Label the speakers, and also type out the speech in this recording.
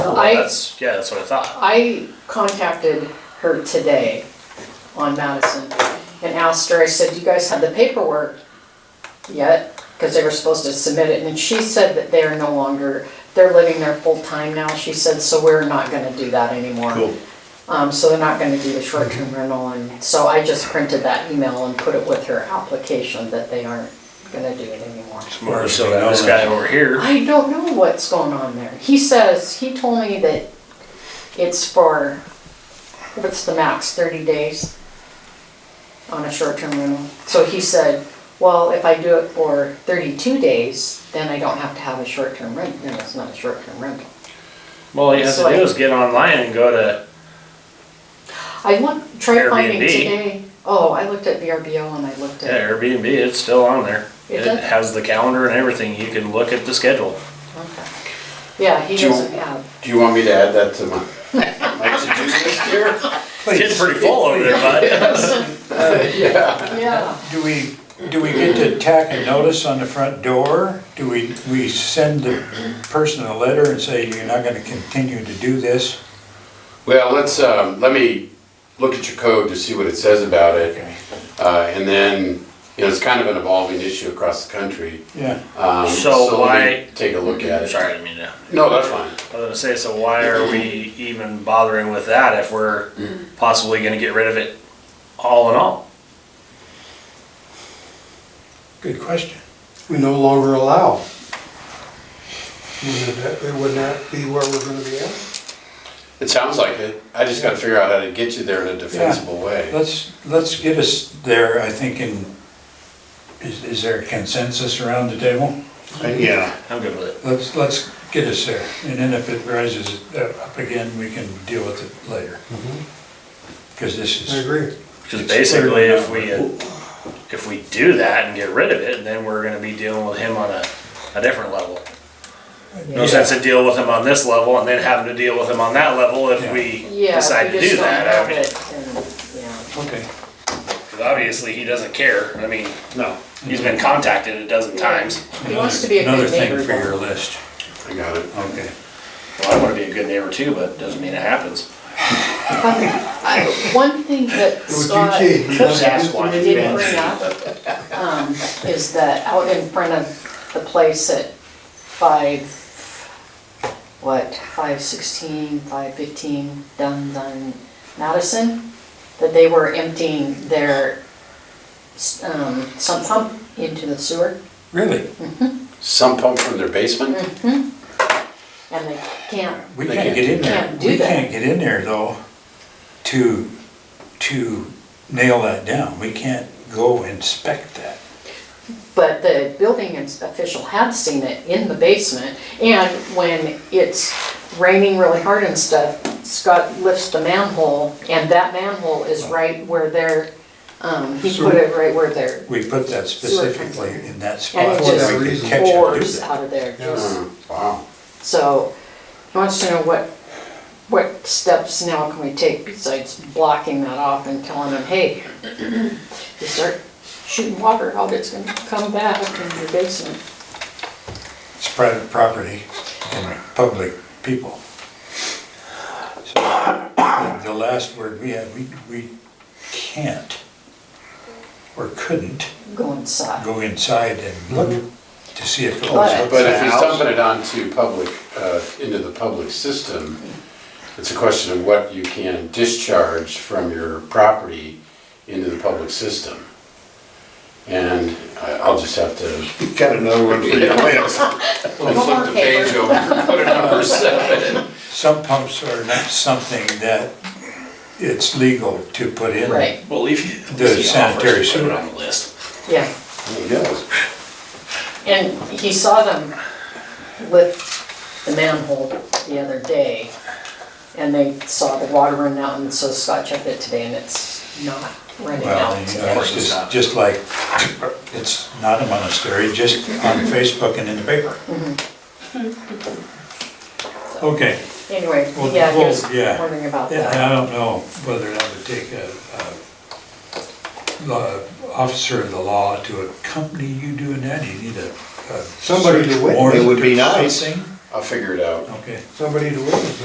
Speaker 1: Well,
Speaker 2: I-
Speaker 1: Oh, that's, yeah, that's what I thought.
Speaker 2: I contacted her today on Madison and asked her, I said, you guys have the paperwork yet? Because they were supposed to submit it, and she said that they're no longer, they're living there full-time now, she said, so we're not gonna do that anymore.
Speaker 1: Cool.
Speaker 2: Um, so they're not gonna do the short-term rental, and so I just printed that email and put it with her application that they aren't gonna do it anymore.
Speaker 1: Or so this guy over here,
Speaker 2: I don't know what's going on there. He says, he told me that it's for, what's the max, thirty days on a short-term rental. So he said, well, if I do it for thirty-two days, then I don't have to have a short-term rent, no, it's not a short-term rental.
Speaker 1: well, all you have to
Speaker 2: So I-
Speaker 1: do is get online and go to,
Speaker 2: I looked, tried finding
Speaker 1: Airbnb.
Speaker 2: today, oh, I looked at VRBO and I looked
Speaker 1: yeah,
Speaker 2: at,
Speaker 1: Airbnb, it's still on there.
Speaker 2: It
Speaker 1: It
Speaker 2: does?
Speaker 1: has the calendar and everything, you can look at the schedule.
Speaker 2: okay. Yeah, he
Speaker 3: Do you-
Speaker 2: doesn't have,
Speaker 3: Do you want me to add that to my, my to-do list here?
Speaker 1: It's getting pretty full over there, bud.
Speaker 3: Yeah.
Speaker 2: yeah.
Speaker 4: Do we, do we get to tack a notice on the front door? Do we, we send the person a letter and say, you're not gonna continue to do this?
Speaker 3: Well, let's, um, let me look at your code to see what it says about it. Uh, and then, you know, it's kind of an evolving issue across the country.
Speaker 4: Yeah,
Speaker 3: Um,
Speaker 1: So
Speaker 3: let me
Speaker 1: why-
Speaker 3: Take a look at it.
Speaker 1: Sorry, I didn't mean to.
Speaker 3: No, that's fine.
Speaker 1: I was gonna say, so why are we even bothering with that if we're possibly gonna get rid of it all in all?
Speaker 4: good question.
Speaker 5: we no longer allow. Would that, it would not be where we're gonna be at?
Speaker 3: It sounds like it. I just gotta figure out how to get you there in a defensible way.
Speaker 4: Let's, let's get us there, I think, in, is, is there a consensus around the table?
Speaker 3: Yeah.
Speaker 1: I'm good with it.
Speaker 4: Let's, let's get us there, and then if it rises up again, we can deal with it later.
Speaker 1: Mm-hmm.
Speaker 4: Because this
Speaker 5: I
Speaker 4: is,
Speaker 5: agree.
Speaker 1: Because
Speaker 4: It's
Speaker 1: basically,
Speaker 4: clear
Speaker 1: if we, if we do that and get rid of it, then we're gonna be dealing with him on a, a different level. No
Speaker 4: Yeah.
Speaker 1: sense to deal with him on this level and then having to deal with him on that level if
Speaker 4: Yeah.
Speaker 1: we
Speaker 2: Yeah, if
Speaker 1: decide to
Speaker 2: we
Speaker 1: do
Speaker 2: just don't
Speaker 1: that.
Speaker 2: have
Speaker 1: I mean,
Speaker 2: it, then, yeah.
Speaker 4: okay,
Speaker 1: 'cause obviously, he doesn't care. I mean, no, he's been contacted a dozen times.
Speaker 2: He wants to be a
Speaker 4: another
Speaker 2: good
Speaker 4: thing
Speaker 2: neighbor.
Speaker 4: for your
Speaker 2: though.
Speaker 4: list,
Speaker 3: I got it.
Speaker 4: okay.
Speaker 1: Well, I wanna be a good neighbor too, but doesn't mean it happens.
Speaker 2: I- One thing that
Speaker 5: It would
Speaker 2: Scott
Speaker 5: be key.
Speaker 1: Ask why.
Speaker 2: did bring up um, is that out in front of the place at five, what, five sixteen, five fifteen, down on Madison, that they were emptying their s- um, sump pump into the sewer.
Speaker 4: Really?
Speaker 3: Some pump from their basement?
Speaker 1: Mm.
Speaker 2: And they can't,
Speaker 4: We
Speaker 3: They
Speaker 4: can't
Speaker 3: can't
Speaker 4: get in
Speaker 2: do-
Speaker 4: there,
Speaker 2: can't do
Speaker 4: we
Speaker 2: that.
Speaker 4: can't get in there though, to, to nail that down, we can't go inspect that.
Speaker 2: But the building ins- official had seen it in the basement, and when it's raining really hard and stuff, Scott lifts the manhole, and that manhole is right where their, um, he put it right where their
Speaker 4: We put that
Speaker 2: Sewer comes
Speaker 4: specifically
Speaker 2: in.
Speaker 4: in that
Speaker 2: And
Speaker 4: spot,
Speaker 2: it
Speaker 5: For
Speaker 4: so
Speaker 5: that
Speaker 4: we could
Speaker 5: reason.
Speaker 4: catch it, do
Speaker 2: bores
Speaker 4: that.
Speaker 2: out of there. just-
Speaker 3: Uh, Wow.
Speaker 2: So, he wants to know what, what steps now can we take besides blocking that off and telling them, hey, you start shooting water out, it's gonna come back in your basement.
Speaker 4: it's private property and public people. So, the- The last word we had, we, we can't, or couldn't,
Speaker 2: Go inside.
Speaker 4: go inside and look to see if it
Speaker 2: But-
Speaker 4: was.
Speaker 3: But if he's dumping it onto public, uh, into the public system, it's a question of what you can discharge from your property into the public system. And I- I'll just have to
Speaker 6: Got another one for you.
Speaker 3: flip the page over and put a number seven.
Speaker 4: Sump pumps are not something that it's legal to put in.
Speaker 2: Right,
Speaker 1: Well, if you.
Speaker 4: The
Speaker 1: if he
Speaker 4: sanitary
Speaker 1: offers to put it
Speaker 4: sewer.
Speaker 1: On the list.
Speaker 2: yeah.
Speaker 3: Yes.
Speaker 2: And he saw them lift the manhole the other day, and they saw the water run out, and so Scott checked it today, and it's not running
Speaker 4: Well,
Speaker 2: out.
Speaker 4: you
Speaker 2: today.
Speaker 4: know, it's just, just like, it's not a monastery, just on Facebook and in the paper.
Speaker 2: Mm-hmm.
Speaker 4: Okay,
Speaker 2: Anyway,
Speaker 4: Well,
Speaker 2: yeah, he
Speaker 4: well,
Speaker 2: was
Speaker 4: yeah.
Speaker 2: wondering about
Speaker 4: yeah, and
Speaker 2: that.
Speaker 4: I don't know whether I would take a, a law- officer of the law to accompany you doing that, you need a. a
Speaker 5: Somebody to
Speaker 4: search
Speaker 5: witness.
Speaker 4: warrant
Speaker 6: It would be
Speaker 4: or
Speaker 6: nice.
Speaker 4: something.
Speaker 3: I'll figure it out.
Speaker 4: Okay.
Speaker 5: Somebody to witness it.